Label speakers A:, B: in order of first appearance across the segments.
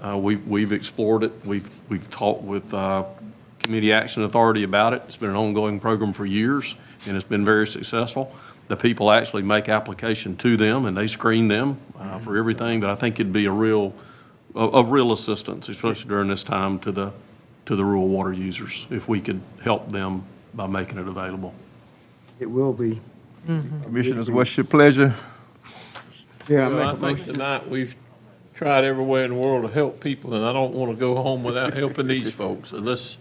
A: Uh, We've we've explored it. We've we've talked with uh, Community Action Authority about it. It's been an ongoing program for years, and it's been very successful. The people actually make application to them, and they screen them uh, for everything, but I think it'd be a real, of of real assistance, especially during this time to the, to the rural water users, if we could help them by making it available.
B: It will be.
C: Commissioners, what's your pleasure?
B: Yeah, I
D: Well, I
B: make a
D: think
B: motion.
D: tonight we've tried everywhere in the world to help people, and I don't want to go home without helping these folks. And let's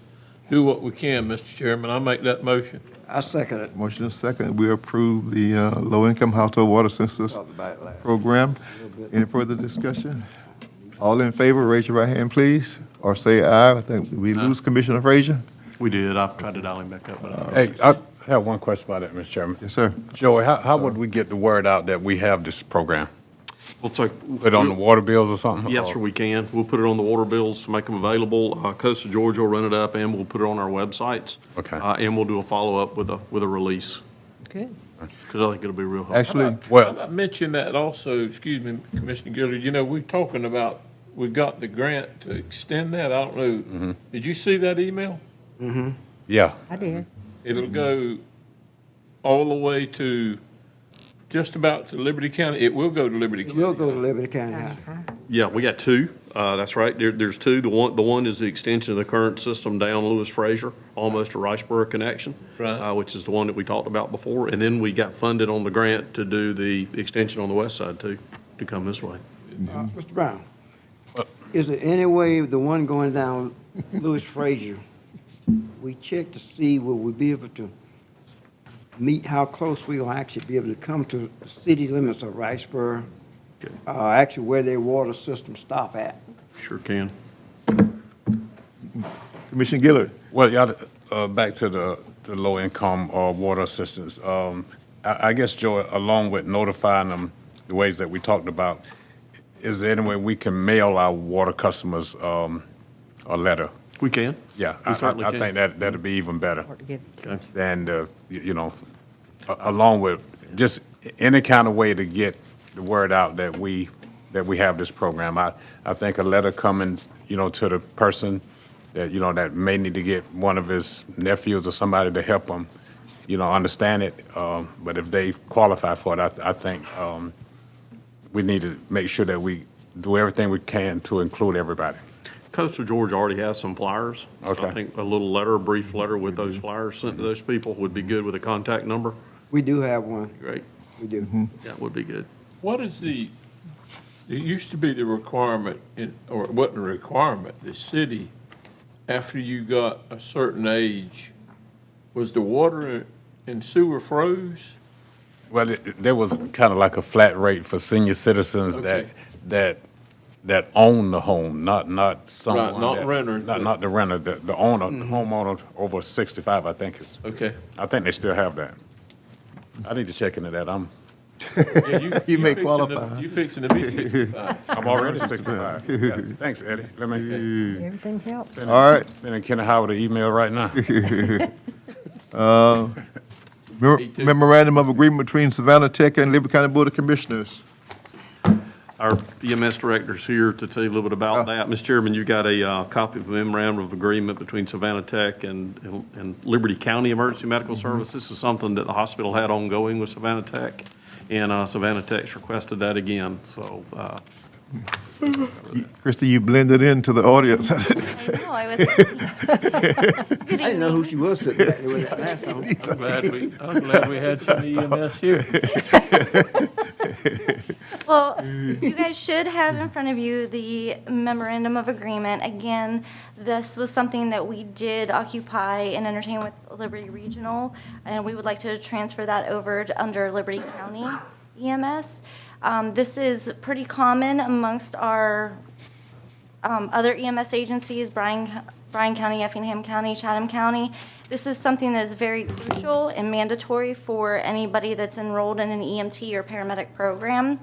D: do what we can, Mr. Chairman. I make that motion.
E: I second it.
C: Motion is second, we approve the uh, low-income household water census program. Any further discussion? All in favor, raise your right hand, please, or say aye. I think we lose Commissioner Frazier.
A: We did. I've tried to dial him back up, but I-
F: Hey, I have one question about that, Mr. Chairman.
C: Yes, sir.
F: Joey, how, how would we get the word out that we have this program?
A: Well, so.
F: Put it on the water bills or something?
A: Yes, sir, we can. We'll put it on the water bills to make them available. Uh, Coast of Georgia will run it up, and we'll put it on our websites.
F: Okay.
A: Uh, And we'll do a follow-up with a, with a release,
G: Good.
A: because I think it'll be real helpful.
C: Actually,
F: Well,
D: I mentioned that also, excuse me, Commissioner Gillard, you know, we're talking about, we got the grant to extend that. I don't
B: Mm-hmm.
D: know. Did you see that email?
F: yeah,
G: I did.
D: It'll
B: Mm-hmm.
D: go all the way to, just about to Liberty County. It will go to Liberty
B: It
D: County.
B: will go to Liberty County.
A: Yeah, we got two. Uh, That's right. There, there's two. The one, the one is the extension of the current system down Lewis Fraser, almost to Riceboro connection.
D: Right.
A: uh, Which is the one that we talked about before. And then we got funded on the grant to do the extension on the west side too, to come this way.
B: Uh, Mr. Brown, is there any way the one going down Lewis Frazier, we check to see will we be able to meet how close we will actually be able to come to the city limits of Riceboro? Uh, actually where their water system stop at.
A: Sure can.
C: Commissioner Gillard,
F: well, yeah, uh, back to the, the low-income, uh, water assistance. Um, I, I guess, Joey, along with notifying them the ways that we talked about, is there any way we can mail our water customers, um, a letter?
A: We can.
F: Yeah, I,
A: We certainly
F: I- I
A: can.
F: think that, that'd be even better.
G: Worked together.
A: Okay.
F: than the, uh, you you know, a- along with just any kind of way to get the word out that we, that we have this program. I, I think a letter coming, you know, to the person that, you know, that may need to get one of his nephews or somebody to help them, you know, understand it. Um, But if they qualify for it, I, I think um, we need to make sure that we do everything we can to include everybody.
A: Coastal Georgia already has some flyers. So I
F: Okay.
A: think a little letter, a brief letter with those flyers sent to those people would be good with a contact number.
B: We do have one,
A: Great.
B: we do.
E: Mm-hmm.
A: That would be good.
D: What is the, it used to be the requirement, in- or it wasn't a requirement, the city, after you got a certain age, was the water and sewer froze?
F: Well, it- it- there was kind of like a flat rate for senior citizens that,
D: Okay.
F: that, that own the home, not, not someone.
D: not
F: that-
D: renter,
F: Not,
D: but-
F: not the renter, the, the owner, the homeowner over sixty-five, I think is,
D: Okay.
F: I think they still have that. I need to check into that. I'm,
D: Yeah,
C: You may
D: fixing to-
C: qualify.
D: You fixing to be sixty-five.
F: I'm already sixty-five. Yeah. Thanks, Eddie. Let me,
G: Everything helps.
C: all right.
F: sending Kenny Howard an email right now.
C: Mem-
D: too.
C: Memorandum of Agreement between Savannah Tech and Liberty County Board of Commissioners.
A: Our EMS director's here to tell you a little bit about that. Mr. Chairman, you got a uh, copy of a memorandum of agreement between Savannah Tech and, and- and Liberty County Emergency Medical Service. This is something that the hospital had ongoing with Savannah Tech, and uh, Savannah Tech's requested that again, so. uh,
C: Christie, you blended into the audience.
H: I know, I was.
B: I didn't know who she was sitting back there with that mask on.
D: I'm glad we, I'm glad we had some EMS here.
H: Well, you guys should have in front of you the memorandum of agreement. Again, this was something that we did occupy and entertain with Liberty Regional, and we would like to transfer that over to under Liberty County EMS. Um, This is pretty common amongst our um, other EMS agencies, Bryan, Bryan County, Effingham County, Chatham County. This is something that is very crucial and mandatory for anybody that's enrolled in an EMT or paramedic program.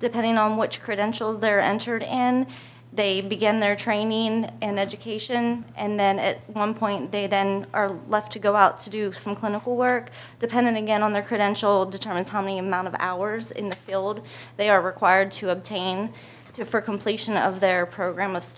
H: Depending on which credentials they're entered in, they begin their training and education, and then at one point, they then are left to go out to do some clinical work. Depending again on their credential determines how many amount of hours in the field they are required to obtain to, for completion of their program of study.